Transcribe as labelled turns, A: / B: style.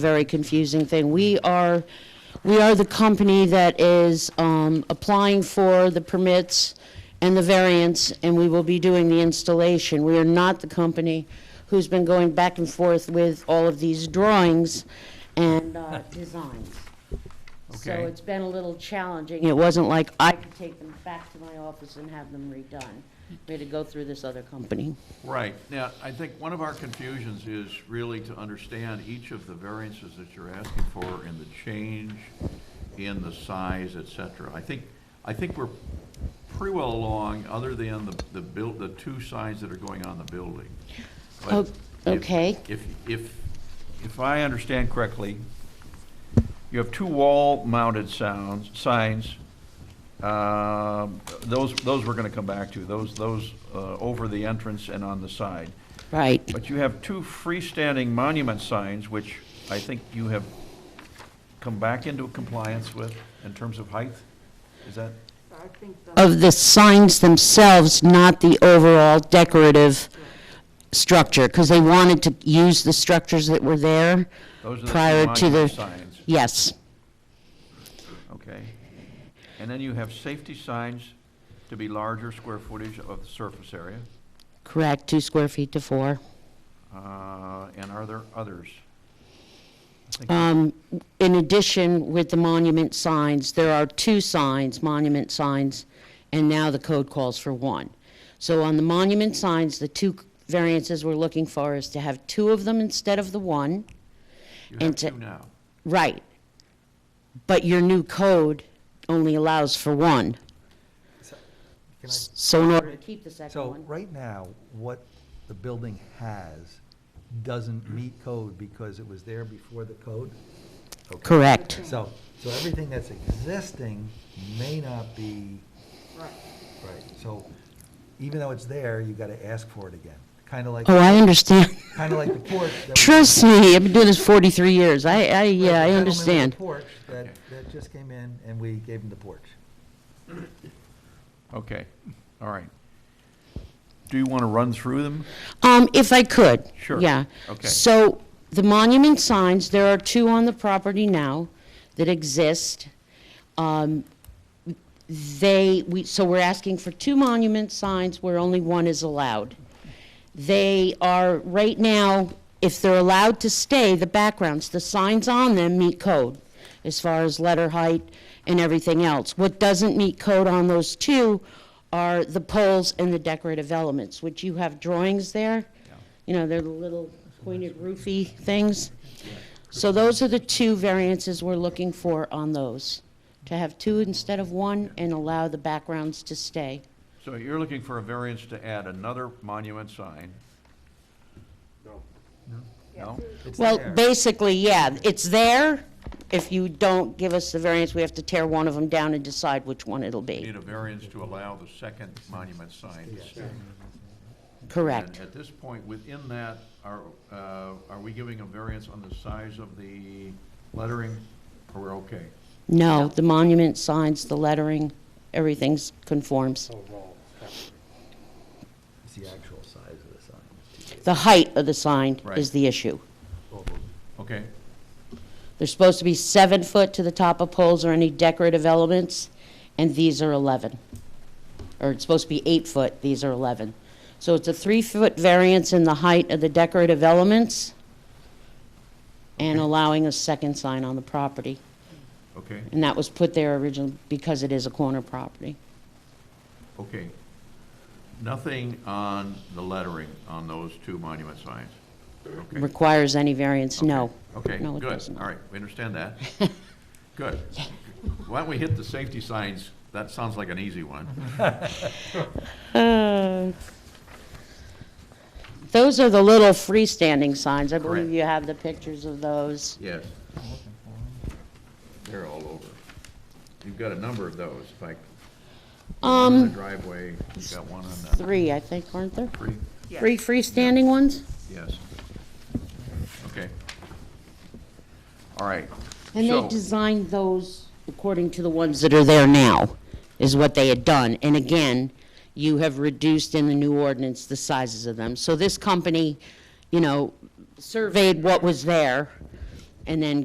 A: very confusing thing. We are, we are the company that is um, applying for the permits and the variance, and we will be doing the installation. We are not the company who's been going back and forth with all of these drawings and uh, designs. So
B: Okay.
A: it's been a little challenging. It wasn't like I could take them back to my office and have them redone. We had to go through this other company.
B: Right. Now, I think one of our confusions is really to understand each of the variances that you're asking for and the change in the size, et cetera. I think, I think we're pretty well along, other than the, the build, the two sides that are going on the building. But
A: Oh,
B: if-
A: okay.
B: If, if, if I understand correctly, you have two wall-mounted sounds, signs. Um, Those, those we're going to come back to, those, those uh, over the entrance and on the side.
A: Right.
B: But you have two freestanding monument signs, which I think you have come back into compliance with in terms of height? Is that,
A: of the signs themselves, not the overall decorative structure, because they wanted to use the structures that were there
B: those are the two
A: prior to
B: monument
A: the,
B: signs?
A: yes,
B: Okay. And then you have safety signs to be larger square footage of the surface area.
A: correct, two square feet to four.
B: Uh, And are there others?
A: Um, In addition, with the monument signs, there are two signs, monument signs, and now the code calls for one. So on the monument signs, the two variances we're looking for is to have two of them instead of the one.
B: You have
A: And to-
B: two now.
A: Right. But your new code only allows for one.
C: Can I-
A: So in order to keep the second
C: So,
A: one.
C: right now, what the building has doesn't meet code because it was there before the code? Okay.
A: Correct.
C: So, so everything that's existing may not be, right, so even though it's there, you gotta ask for it again. Kinda like,
A: Oh, I understand.
C: kinda like the porch. that was-
A: Trust me, I've been doing this 43 years. I, I,
C: Right,
A: yeah, I
C: the gentleman with the
A: understand.
C: Porch that, that just came in and we gave him the porch.
B: Okay, all right. Do you want to run through them?
A: Um, if I could.
B: Sure.
A: Yeah.
B: Okay.
A: So the monument signs, there are two on the property now that exist. Um, They, we, so we're asking for two monument signs where only one is allowed. They are, right now, if they're allowed to stay, the backgrounds, the signs on them meet code as far as letter height and everything else. What doesn't meet code on those two are the poles and the decorative elements, which you have drawings there. You know, they're the little pointed roofy things. So those are the two variances we're looking for on those, to have two instead of one and allow the backgrounds to stay.
B: So you're looking for a variance to add another monument sign? No. No?
C: It's
A: Well,
C: there.
A: basically, yeah, it's there. If you don't give us the variance, we have to tear one of them down and decide which one it'll be.
B: Need a variance to allow the second monument sign to stay?
A: Correct.
B: And at this point, within that, are, uh, are we giving a variance on the size of the lettering, or we're okay?
A: No, the monument signs, the lettering, everything's conforms.
C: Oh. It's the actual size of the sign.
A: The height of the sign is
B: Right.
A: the issue.
B: Okay,
A: They're supposed to be seven foot to the top of poles or any decorative elements, and these are 11. Or it's supposed to be eight foot, these are 11. So it's a three-foot variance in the height of the decorative elements and allowing a second sign on the property.
B: okay,
A: And that was put there originally because it is a corner property.
B: okay. Nothing on the lettering on those two monument signs? Okay.
A: Requires any variance, no.
B: Okay,
A: No, it
B: good,
A: doesn't.
B: all right, we understand that. Good. Why don't we hit the safety signs? That sounds like an easy one.
A: Uh, Those are the little freestanding signs. I believe
B: Correct.
A: you have the pictures of those.
B: Yes. They're all over. You've got a number of those, like, one in the
A: Um,
B: driveway, you've got one on the,
A: three, I think, aren't there?
B: three,
A: Three freestanding ones?
B: yes. Okay. All right.
A: And they
B: So-
A: designed those according to the ones that are there now, is what they had done. And again, you have reduced in the new ordinance the sizes of them. So this company, you know, surveyed what was there and then